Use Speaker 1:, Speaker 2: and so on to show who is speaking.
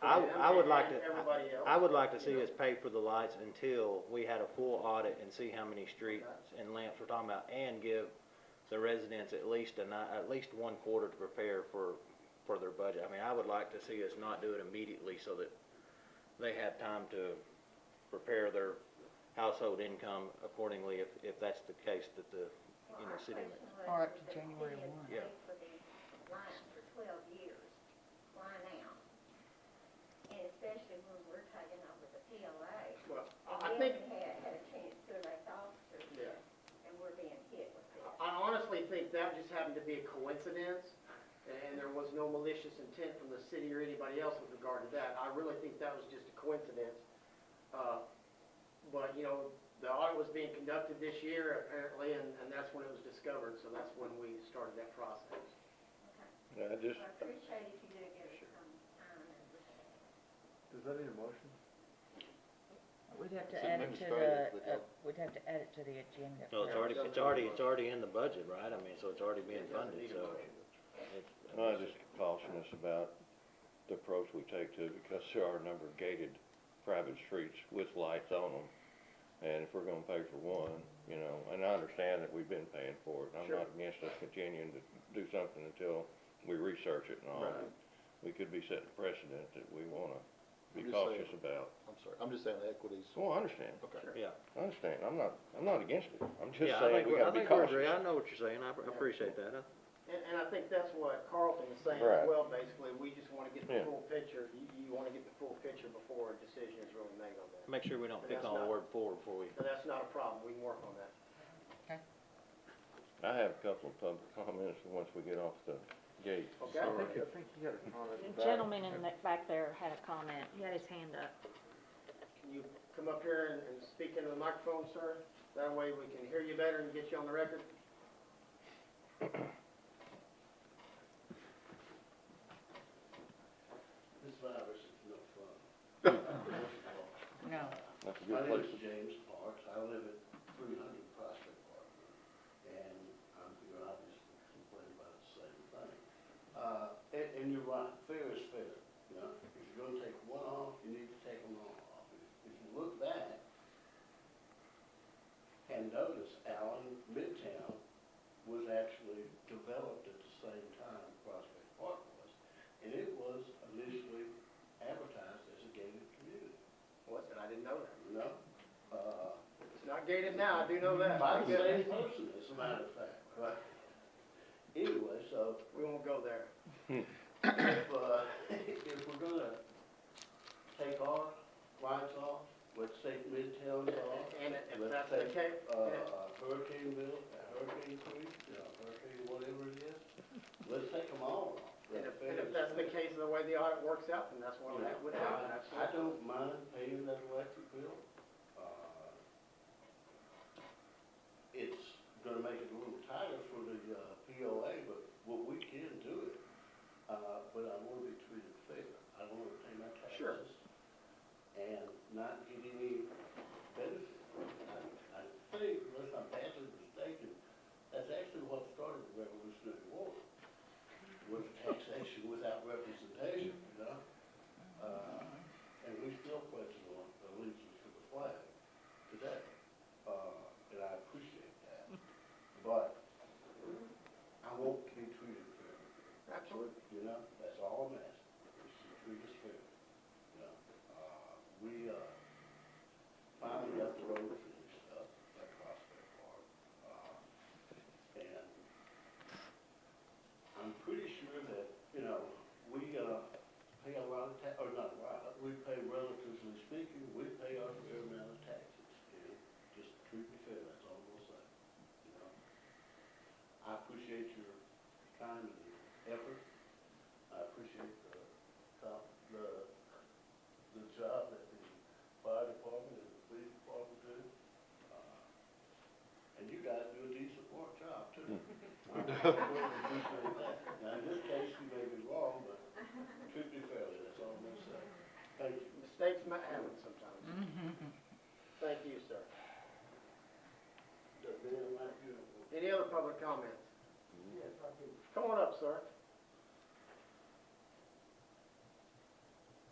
Speaker 1: I, I would like to,
Speaker 2: Everybody else.
Speaker 1: I would like to see
Speaker 2: you know.
Speaker 1: us pay for the lights until we had a full audit and see how many streets and lamps we're talking about, and give the residents at least a ni- at least one quarter to prepare for, for their budget. I mean, I would like to see us not do it immediately so that they have time to prepare their household income accordingly, if, if that's the case that the, you know, city. ma-
Speaker 3: Or up to January one.
Speaker 1: Yeah.
Speaker 4: For these lines for twelve years, why now? And especially when we're taking over the PLA.
Speaker 2: Well, I I
Speaker 4: And we
Speaker 2: think,
Speaker 4: haven't had, had a chance to elect officers
Speaker 2: yeah,
Speaker 4: yet, and we're being hit with this.
Speaker 2: I honestly think that just happened to be a coincidence, and there was no malicious intent from the city or anybody else with regard to that. I really think that was just a coincidence. Uh, But, you know, the audit was being conducted this year apparently, and, and that's when it was discovered, so that's when we started that process.
Speaker 4: Okay.
Speaker 5: Yeah, I just,
Speaker 4: I appreciate if you do give us some time and.
Speaker 6: Does that need a motion?
Speaker 3: We'd have to
Speaker 5: It's
Speaker 3: add it to
Speaker 5: administrative
Speaker 3: the, uh,
Speaker 5: without-
Speaker 3: we'd have to add it to the agenda.
Speaker 1: So it's
Speaker 3: for-
Speaker 1: already, it's already, it's already in the budget, right? I mean, so it's already being funded, so. it's-
Speaker 5: I just caution us about the approach we take to, it because there are a number of gated private streets with lights on them. And if we're gonna pay for one, you know, and I understand that we've been paying for it, and I'm
Speaker 2: Sure.
Speaker 5: not against us continuing to do something until we research it and all.
Speaker 6: Right.
Speaker 5: We could be setting precedent that we wanna be
Speaker 6: I'm just saying.
Speaker 5: cautious about.
Speaker 6: I'm sorry, I'm just saying the equities.
Speaker 5: Well, I understand,
Speaker 6: Okay.
Speaker 1: Yeah.
Speaker 5: I understand, I'm not, I'm not against it, I'm just
Speaker 1: Yeah, I
Speaker 5: saying
Speaker 1: think
Speaker 5: we
Speaker 1: we're- I
Speaker 5: gotta be
Speaker 1: think we're agree.
Speaker 5: cautious.
Speaker 1: I know what you're saying, I I appreciate that. I-
Speaker 2: And, and I think that's what Carlton is saying as
Speaker 5: Right.
Speaker 2: well, basically, we just wanna get the
Speaker 5: Yeah.
Speaker 2: full picture, you, you wanna get the full picture before a decision is really made on that.
Speaker 1: Make sure we don't
Speaker 2: But
Speaker 1: pick
Speaker 2: that's
Speaker 1: on the
Speaker 2: not-
Speaker 1: word four before we,
Speaker 2: So that's not a problem, we can work on that.
Speaker 5: I have a couple of public comments once we get off the gate.
Speaker 2: Okay.
Speaker 6: I think, I think you had a comment
Speaker 7: The
Speaker 6: back.
Speaker 7: gentleman in the, back there had a comment, he had his hand up.
Speaker 2: Can you come up here and, and speak into the microphone, sir? That way we can hear you better and get you on the record.
Speaker 8: This virus is no fun.
Speaker 3: No,
Speaker 5: That's a good
Speaker 8: My name
Speaker 5: place
Speaker 8: is James Parks, I live at three hundred Prospect Park, and I'm here obviously complaining about the same thing. Uh, and, and you're right, fair is fair, you know, if you're gonna take one off, you need to take them all off. If you look back and notice, Allen Midtown was actually developed at the same time Prospect Park was, and it was initially advertised as a gated community.
Speaker 2: What, I didn't know that.
Speaker 8: No, uh,
Speaker 2: It's not gated now, I do know that. I
Speaker 8: by the
Speaker 2: get
Speaker 8: same
Speaker 2: it.
Speaker 8: person, as a matter of fact, right? Anyway, so
Speaker 2: We won't go there.
Speaker 8: if, uh, if we're gonna take off, lights off, let's take Midtown off,
Speaker 2: And if
Speaker 8: Let's
Speaker 2: that's the
Speaker 8: take,
Speaker 2: case,
Speaker 8: uh, Hurricane Bill, uh, Hurricane Creek, you know, Hurricane whatever it is, let's take them all off.
Speaker 2: and if, and
Speaker 8: Fair
Speaker 2: if
Speaker 8: is
Speaker 2: that's the
Speaker 8: fair.
Speaker 2: case of the way the audit works out, then that's what that would happen,
Speaker 8: I
Speaker 2: absolutely.
Speaker 8: don't mind paying that electric bill. Uh, It's gonna make it a little tighter for the uh, POA, but what we can do it, uh, but I wanna be treated fair. I don't wanna pay my
Speaker 2: Sure.
Speaker 8: taxes and not get any benefit. I- I think, unless I'm badly mistaken, that's actually what started the Revolutionary War, was taxation without representation, you know? Uh, and we still pledge allegiance to the flag today, uh, and I appreciate that. But I won't be treated fair,
Speaker 2: Absolutely.
Speaker 8: you know, that's all I'm asking, is to treat us fair, you know? Uh, we, uh, finally got the road finished up at Prospect Park, uh, and I'm pretty sure that, you know, we, uh, pay a lot of ta, or not a lot, we pay relatively speaking, we pay our fair amount of taxes, and just treat me fair, that's all I'm gonna say, you know? I appreciate your time and effort, I appreciate the, co- the, the job that the fire department and the police department do. Uh, And you guys do a decent work job too. I appreciate that. Now, in this case, you may be wrong, but Treat me fairly, that's all I'm gonna say. Thank you.
Speaker 2: Mistakes might happen sometimes.
Speaker 8: Mm-hmm.
Speaker 2: Thank you, sir.
Speaker 8: The man like you.
Speaker 2: Any other public comments?
Speaker 8: Yes, I do.
Speaker 2: Come on up, sir.